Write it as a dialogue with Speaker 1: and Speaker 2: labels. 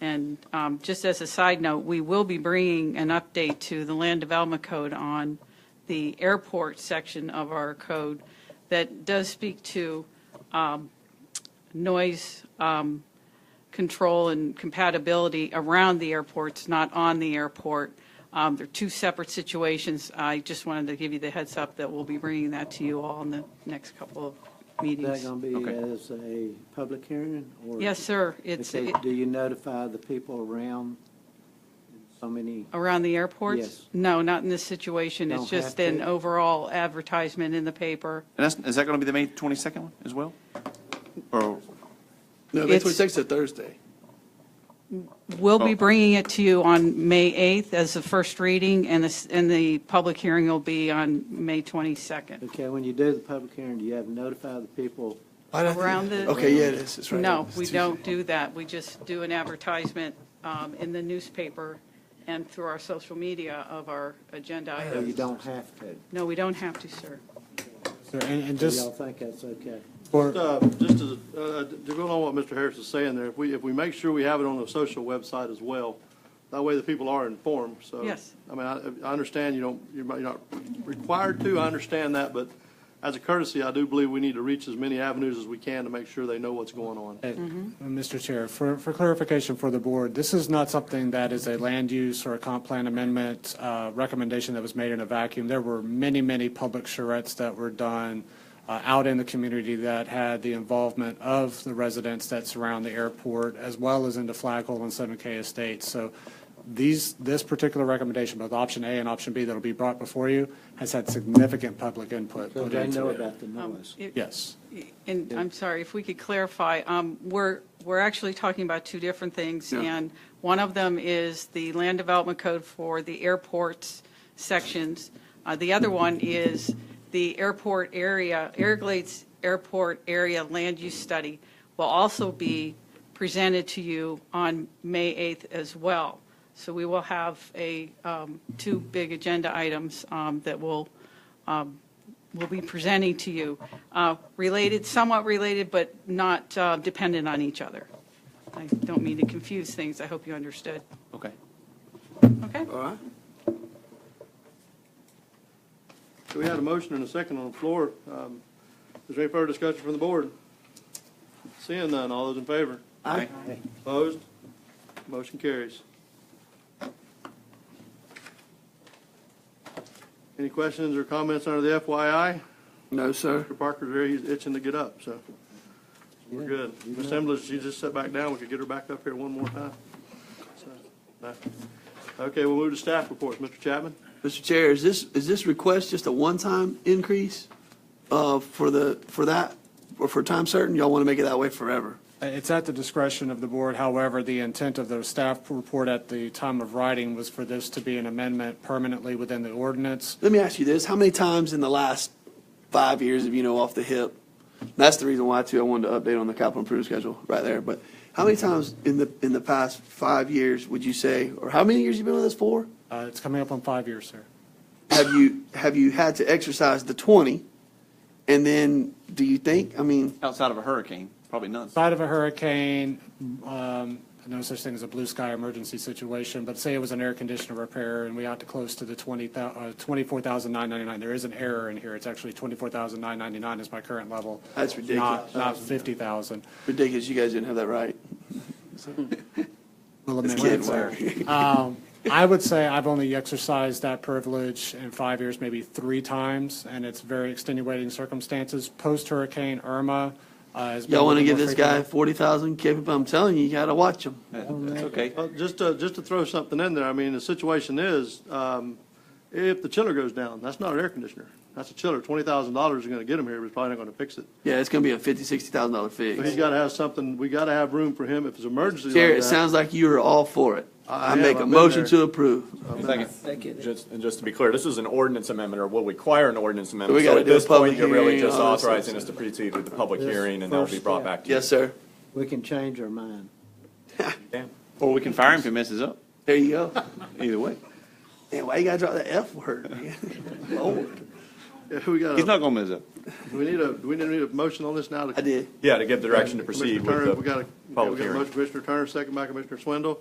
Speaker 1: And um, just as a side note, we will be bringing an update to the Land Development Code on the airport section of our code that does speak to um, noise um, control and compatibility around the airports, not on the airport. Um, They're two separate situations. I just wanted to give you the heads up that we'll be bringing that to you all in the next couple of
Speaker 2: Is that
Speaker 1: meetings.
Speaker 2: going to be
Speaker 3: Okay.
Speaker 2: as a public hearing? or-
Speaker 1: Yes, sir. It's
Speaker 2: Okay, Do you notify the people around so many?
Speaker 1: Around the airports?
Speaker 2: Yes.
Speaker 1: No, not in this situation. It's
Speaker 2: Don't have
Speaker 1: just an
Speaker 2: to.
Speaker 1: overall advertisement in the paper.
Speaker 3: And that's, is that going to be the May 22nd one as well? Or,
Speaker 4: No, May
Speaker 1: It's-
Speaker 4: 26th is a Thursday.
Speaker 1: We'll be
Speaker 3: Oh.
Speaker 1: bringing it to you on May 8th as the first reading, and the, and the public hearing will be on May 22nd.
Speaker 2: Okay, when you do the public hearing, do you have to notify the people?
Speaker 4: Why did I think-
Speaker 1: Around the-
Speaker 4: Okay, yeah, it is, it's right.
Speaker 1: No,
Speaker 4: It's
Speaker 1: we
Speaker 4: Tuesday.
Speaker 1: don't do that. We just do an advertisement um, in the newspaper and through our social media of our agenda
Speaker 2: Or you
Speaker 1: items.
Speaker 2: don't have to?
Speaker 1: No, we don't have to, sir.
Speaker 5: Sir, And, and
Speaker 2: Do y'all
Speaker 5: just
Speaker 2: think that's okay?
Speaker 5: for,
Speaker 6: Uh, Just as, uh, to go along with Mr. Harris is saying there, if we, if we make sure we have it on the social website as well, that way the people are informed, so.
Speaker 1: Yes.
Speaker 6: I mean, I, I understand you don't, you're not- you're not required to, I understand that, but as a courtesy, I do believe we need to reach as many avenues as we can to make sure they know what's going on.
Speaker 5: uh, Mr. Chair, for, for clarification for the board, this is not something that is a land use or a comp plan amendment uh, recommendation that was made in a vacuum. There were many, many public charrettes that were done uh, out in the community that had the involvement of the residents that surround the airport, as well as into Flag Hole and 7K Estates. So these, this particular recommendation, both option A and option B that'll be brought before you, has had significant public input.
Speaker 2: So
Speaker 5: put
Speaker 2: they
Speaker 5: into
Speaker 2: know
Speaker 5: it.
Speaker 2: about the
Speaker 1: Um,
Speaker 2: noise.
Speaker 1: it-
Speaker 5: Yes.
Speaker 1: And I'm sorry, if we could clarify, um, we're, we're actually talking about two different things.
Speaker 4: Yeah.
Speaker 1: And one of them is the land development code for the airports sections. Uh, The other one is the airport area, Everglades Airport Area Land Use Study will also be presented to you on May 8th as well. So we will have a, um, two big agenda items um, that will um, will be presenting to you, uh, related, somewhat related, but not uh, dependent on each other. I don't mean to confuse things, I hope you understood.
Speaker 3: okay.
Speaker 1: Okay?
Speaker 4: All right.
Speaker 6: So we had a motion and a second on the floor. Um, Is there any further discussion from the board? Seeing none, all those in favor?
Speaker 4: Aye.
Speaker 6: Opposed? Motion carries. Any questions or comments under the FYI?
Speaker 4: No, sir.
Speaker 6: Mr. Parker's there, he's itching to get up, so we're good. Ms. Embly, she just sat back down, we could get her back up here one more time. So, no. Okay, we'll move to staff reports. Mr. Chapman?
Speaker 4: Mr. Chair, is this, is this request just a one-time increase uh, for the, for that, or for time certain? Y'all want to make it that way forever?
Speaker 5: It's at the discretion of the board. However, the intent of the staff report at the time of writing was for this to be an amendment permanently within the ordinance.
Speaker 4: Let me ask you this, how many times in the last five years have you know off the hip? That's the reason why too, I wanted to update on the capital improvement schedule right there, but how many times in the, in the past five years would you say, or how many years you been with us for?
Speaker 5: Uh, It's coming up on five years, sir.
Speaker 4: Have you, have you had to exercise the twenty? And then, do you think, I mean,
Speaker 3: Outside of a hurricane, probably none.
Speaker 5: Side of a hurricane, um, no such thing as a blue sky emergency situation, but say it was an air conditioner repair and we ought to close to the 20, uh, 24,999. There is an error in here. It's actually 24,999 is my current level.
Speaker 4: That's ridiculous.
Speaker 5: Not, not 50,000.
Speaker 4: ridiculous, you guys didn't have that right.
Speaker 5: We'll
Speaker 4: It's
Speaker 5: amend
Speaker 4: kid
Speaker 5: that, sir.
Speaker 4: work.
Speaker 5: Um, I would say I've only exercised that privilege in five years, maybe three times, and it's very extenuating circumstances. Post Hurricane Irma uh, has been.
Speaker 4: Y'all want
Speaker 5: a
Speaker 4: to
Speaker 5: little
Speaker 4: give this
Speaker 5: more
Speaker 4: guy
Speaker 5: frequent.
Speaker 4: forty thousand, Kevin, I'm telling you, you gotta watch him.
Speaker 3: That- That's okay.
Speaker 6: Well, Just to, just to throw something in there, I mean, the situation is, um, if the chiller goes down, that's not an air conditioner. That's a chiller. Twenty thousand dollars is gonna get him here, but it's probably not gonna fix it.
Speaker 4: Yeah, it's gonna be a fifty, sixty thousand dollar fix.
Speaker 6: But he's gotta have something, we gotta have room for him if it's an emergency like
Speaker 4: Jared, it
Speaker 6: that.
Speaker 4: sounds like you are all for it.
Speaker 6: I
Speaker 4: I
Speaker 6: am.
Speaker 4: make
Speaker 6: I've
Speaker 4: a
Speaker 6: been
Speaker 4: motion
Speaker 6: there.
Speaker 4: to approve.
Speaker 7: Just, and just to be clear, this is an ordinance amendment, or will require an ordinance amendment.
Speaker 4: We gotta
Speaker 7: So at
Speaker 4: do a
Speaker 7: this point,
Speaker 4: public
Speaker 7: you're really
Speaker 4: hearing,
Speaker 7: just
Speaker 4: all this other
Speaker 7: authorizing us to proceed with the public
Speaker 2: This
Speaker 7: hearing, and that'll be
Speaker 2: first
Speaker 7: brought
Speaker 2: step.
Speaker 7: back to you.
Speaker 4: Yes, sir.
Speaker 2: We can change our mind.
Speaker 3: Or we can fire him if he messes up,
Speaker 4: There you go.
Speaker 3: either way.
Speaker 4: Man, why you gotta drop that F word, man? Lord.
Speaker 6: Who we got,
Speaker 8: He's
Speaker 6: a-
Speaker 8: not gonna mess up.
Speaker 6: do we need a, do we need a motion on this now? to-
Speaker 4: I did.
Speaker 7: Yeah, to give direction to proceed
Speaker 6: Commissioner Turner,
Speaker 7: with
Speaker 6: we
Speaker 7: the
Speaker 6: got a, we
Speaker 7: public
Speaker 6: got a
Speaker 7: hearing.
Speaker 6: motion, Commissioner Turner, second by Commissioner Swindle.